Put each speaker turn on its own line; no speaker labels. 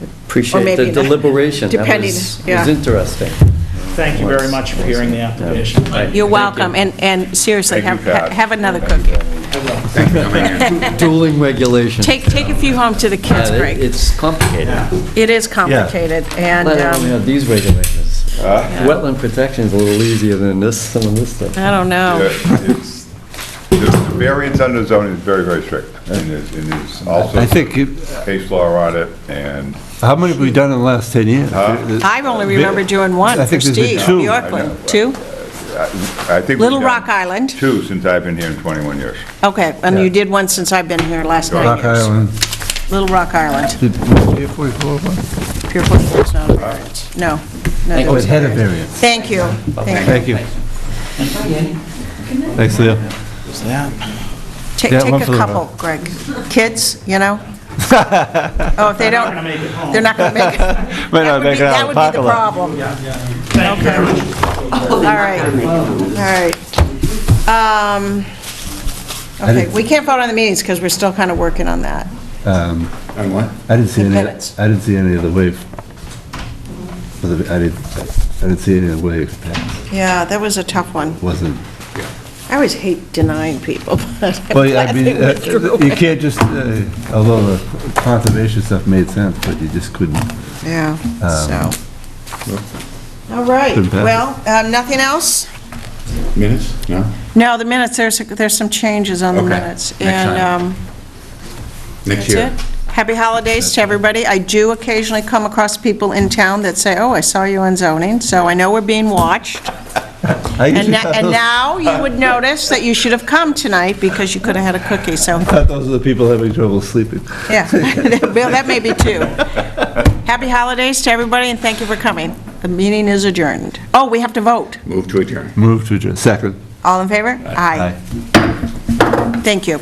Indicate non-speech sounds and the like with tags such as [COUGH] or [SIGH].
Or
appreciate the
maybe not. [LAUGHS]
deliberation. That
Depending,
was-
yeah.
was
[LAUGHS]
interesting.
Thank you very much for hearing the application.
Right.
You're
Thank
welcome, and, and seriously,
Thank
have,
you,
ha-
Pat.
have another
Thank
cookie.
you. Thank you for coming in.
Dueling regulations.
Take, take a few home to the
Yeah,
kids,
Uh, it-
Greg.
It's complicated.
It is complicated, and,
Let alone, you know,
um,
these regulations.
Uh,
Wetland protection is a little easier than this, some of this stuff.
I don't know.
yeah, it's- The the variance under zoning is very, very strict, and there's, and there's also
I think, it-
case law on it, and
how many have we done in the last 10 years?
I only remember doing one
I
for
think there's been
Steve,
two.
I know.
Yorkland. Two?
I think. we've
Little
done
Rock Island.
Two since I've been here in 21 years.
Okay, and
Yeah.
you did one since I've been here last nine
Rock
years.
Island, Hmm.
Little Rock Island,
did, was it 44 one?
Pure Point was not a variance. No. no, there
you.
Oh, it
was
had a
not.
variance.
Thank you, thank you.
Thank you. Thanks, Leo.
Ta-
Yeah,
Take
one
a
for the road.
couple, Greg. Kids, you know? Oh, if they don't, they're not going to make it.
Might not
That would
make
be-
it out of the parking lot.
That would be the problem. Okay. All right, all right. Um, Okay,
didn't-
we can't vote on the meetings because we're still kind of working on that.
Um,
And what?
I didn't see
The
any, I
pivots.
didn't see any of the wave. For the- I didn't, I didn't see any of the wave, That
Yeah, that was a tough one.
wasn't,
I always hate denying people, [LAUGHS] but I'm
well, yeah, I
glad they
mean, uh,
went through
you
it.
can't just, uh, although the conservation stuff made sense, but you just couldn't.
Yeah, so.
Um,
All right,
couldn't pass it.
well, uh, nothing else?
Minutes? No?
No, the minutes, there's, there's some changes on the
Okay,
minutes.
next time.
And, um,
Next
That's it.
year.
Happy holidays to everybody. I do occasionally come across people in town that say, "Oh, I saw you on zoning," so I know we're being watched.
I
And
[LAUGHS] usually
na-
thought
and
those-
now you would notice that you should have come tonight because you could have had a cookie, so,
I thought those are the people having trouble sleeping.
yeah. [LAUGHS] Bill, that may be two. Happy holidays to everybody, and thank you for coming. The meeting is adjourned. Oh, we have to vote.
Move to adjourn.
Move to adjourn. Second.
All in favor?
Aye.
Aye. Thank you.